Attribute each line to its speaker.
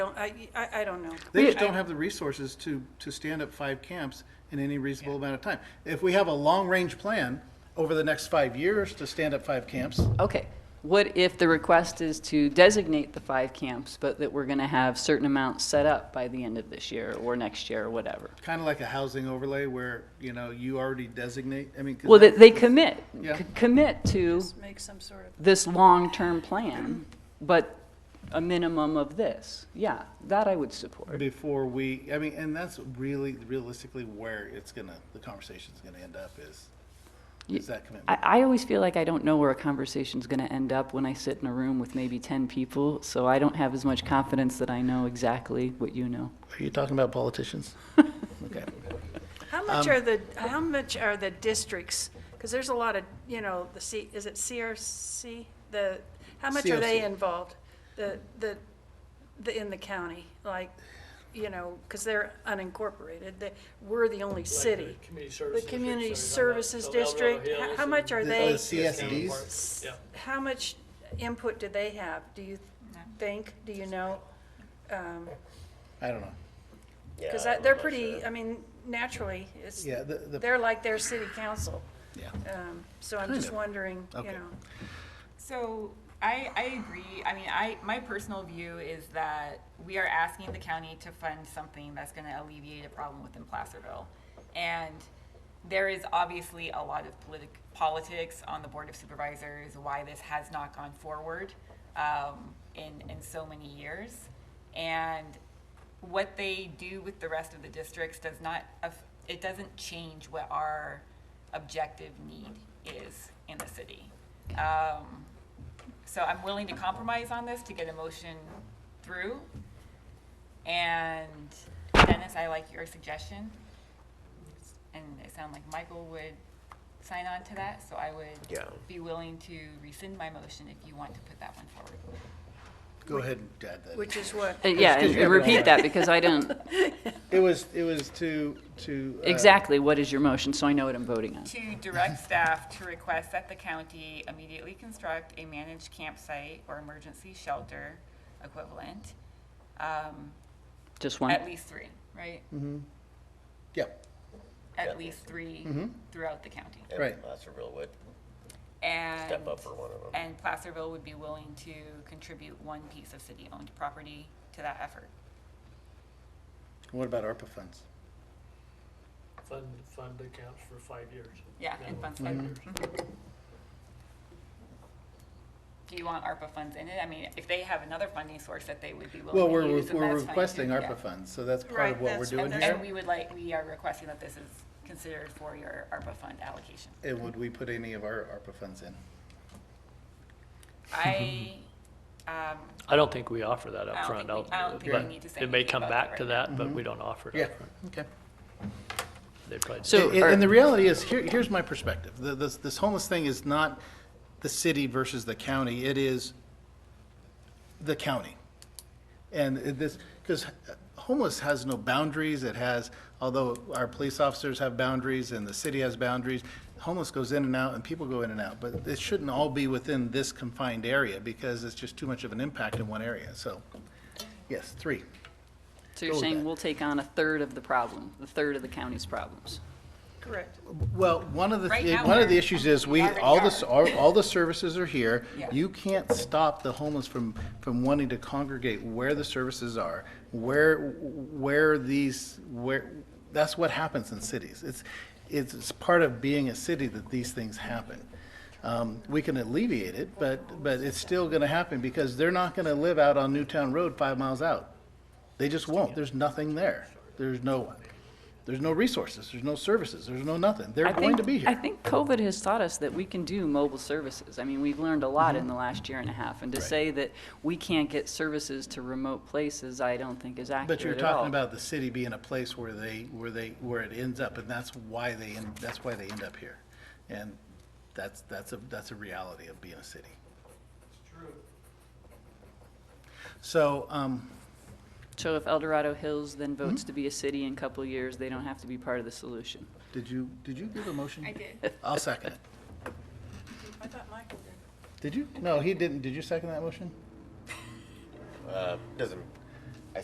Speaker 1: don't, I, I I don't know.
Speaker 2: They just don't have the resources to, to stand up five camps in any reasonable amount of time. If we have a long-range plan over the next five years to stand up five camps,
Speaker 3: Okay, what if the request is to designate the five camps, but that we're going to have certain amounts set up by the end of this year or next year or whatever?
Speaker 2: kind of like a housing overlay where, you know, you already designate, I mean. 'cause
Speaker 3: Well, that
Speaker 2: that-
Speaker 3: they commit,
Speaker 2: Yeah.
Speaker 3: c- commit to
Speaker 1: Just make some sort of,
Speaker 3: this long-term plan, but a minimum of this. Yeah, that I would support.
Speaker 2: Before we, I mean, and that's really realistically where it's gonna, the conversation's gonna end up is, is that commitment.
Speaker 3: I, I always feel like I don't know where a conversation's going to end up when I sit in a room with maybe 10 people, so I don't have as much confidence that I know exactly what you know.
Speaker 2: Are you talking about politicians? Okay.
Speaker 1: how much are the, how much are the districts? Because there's a lot of, you know, the C, is it CRC? The, how much are they
Speaker 2: CRC.
Speaker 1: involved? The, the, the, in the county, like, you know, because they're unincorporated, they, we're the only city. The community services district, how, how much are
Speaker 2: The-
Speaker 1: they?
Speaker 2: the CSDs?
Speaker 1: s-
Speaker 4: Yeah.
Speaker 1: How much input do they have, do you think, do you know? Um,
Speaker 2: I don't know.
Speaker 1: Because they're pretty, I mean, naturally, it's,
Speaker 2: Yeah, the, the,
Speaker 1: they're like their city council.
Speaker 2: yeah.
Speaker 1: Um, So I'm
Speaker 2: Kind
Speaker 1: just
Speaker 2: of.
Speaker 1: wondering, you
Speaker 2: Okay.
Speaker 1: know,
Speaker 5: So I, I agree. I mean, I, my personal view is that we are asking the county to fund something that's going to alleviate a problem within Placerville. And there is obviously a lot of politic, politics on the Board of Supervisors, why this has not gone forward um, in, in so many years. And what they do with the rest of the districts does not, aff- it doesn't change what our objective need is in the city. Um, So I'm willing to compromise on this to get a motion through. And Dennis, I like your suggestion. And it sounded like Michael would sign on to that, so I
Speaker 4: Yeah.
Speaker 5: would be willing to rescind my motion if you want to put that one forward.
Speaker 2: Go ahead and add that. in.
Speaker 1: which is what,
Speaker 3: Uh, Yeah,
Speaker 2: Excuse
Speaker 3: and
Speaker 2: me,
Speaker 3: and repeat that, because I don't,
Speaker 2: It was, it was to, to. uh,
Speaker 3: exactly what is your motion, so I know what I'm voting on.
Speaker 5: To direct staff to request that the county immediately construct a managed campsite or emergency shelter equivalent, um,
Speaker 3: Just one?
Speaker 5: at least three, right?
Speaker 2: Yeah,
Speaker 5: At least three throughout the county.
Speaker 2: Right.
Speaker 4: Placerville would
Speaker 5: And,
Speaker 4: step up for one of them.
Speaker 5: and Placerville would be willing to contribute one piece of city-owned property to that effort.
Speaker 2: what about ARPA funds?
Speaker 6: fund, fund accounts for five years.
Speaker 5: Yeah,
Speaker 6: That
Speaker 5: and
Speaker 6: one,
Speaker 5: funds
Speaker 6: five
Speaker 5: like-
Speaker 6: years.
Speaker 5: Do you want ARPA funds in it? I mean, if they have another funding source that they would be
Speaker 2: Well,
Speaker 5: willing
Speaker 2: we're,
Speaker 5: to use, then
Speaker 2: we're
Speaker 5: that's fine
Speaker 2: requesting
Speaker 5: too,
Speaker 2: ARPA
Speaker 5: yeah.
Speaker 2: funds, so that's part
Speaker 1: Right,
Speaker 2: of what we're
Speaker 1: that's-
Speaker 2: doing
Speaker 5: And, and
Speaker 2: here.
Speaker 5: we would like, we are requesting that this is considered for your ARPA fund allocation.
Speaker 2: And would we put any of our ARPA funds in?
Speaker 5: I, um,
Speaker 7: I don't think we offer that
Speaker 5: I don't
Speaker 7: upfront.
Speaker 5: think, we- I don't think
Speaker 7: but
Speaker 5: we need to say
Speaker 7: It may
Speaker 5: anything
Speaker 7: come
Speaker 5: about
Speaker 7: back
Speaker 5: right
Speaker 7: to
Speaker 5: now.
Speaker 7: that, but we don't offer it upfront.
Speaker 2: okay.
Speaker 7: They probably
Speaker 3: So-
Speaker 2: And-
Speaker 3: are-
Speaker 2: And the reality is, here, here's my perspective. The- This, this homeless thing is not the city versus the county. It is the county. And it- this, because homeless has no boundaries, it has, although our police officers have boundaries and the city has boundaries, homeless goes in and out and people go in and out, but it shouldn't all be within this confined area because it's just too much of an impact in one area, so, yes, three.
Speaker 3: So you're
Speaker 2: Go with
Speaker 3: saying
Speaker 2: that.
Speaker 3: we'll take on a third of the problem, the third of the county's problems?
Speaker 1: correct.
Speaker 2: Well, one of the,
Speaker 5: Right
Speaker 2: thi-
Speaker 5: now,
Speaker 2: one of the
Speaker 5: we're-
Speaker 2: issues is we,
Speaker 5: already
Speaker 2: all the,
Speaker 5: are.
Speaker 2: s- all all the services are here.
Speaker 5: Yeah.
Speaker 2: You can't stop the homeless from, from wanting to congregate where the services are, where, where these, where, that's what happens in cities. It's, it's, it's part of being a city that these things happen. Um, We can alleviate it, but, but it's still gonna happen because they're not gonna live out on Newtown Road five miles out. They just won't. There's nothing there. There's no, there's no resources, there's no services, there's no nothing. They're
Speaker 3: I
Speaker 2: going
Speaker 3: think-
Speaker 2: to be
Speaker 3: I
Speaker 2: here.
Speaker 3: think COVID has taught us that we can do mobile services. I mean, we've learned a lot
Speaker 2: Mm-hmm.
Speaker 3: in the last year and a half, and to say that we can't get services to remote places, I don't think is accurate
Speaker 2: But you're
Speaker 3: at all.
Speaker 2: talking about the city being a place where they, where they, where it ends up, and that's why they, end that's why they end up here. And that's, that's a, that's a reality of being a city. It's true. So, um,
Speaker 3: So if El Dorado Hills then
Speaker 2: Mm-hmm.
Speaker 3: votes to be a city in a couple of years, they don't have to be part of the solution.
Speaker 2: did you, did you give a motion?
Speaker 5: I did.
Speaker 2: I'll second it.
Speaker 1: I thought Michael did.
Speaker 2: Did you? No, he didn't. Did you second that motion?
Speaker 4: Uh, Doesn't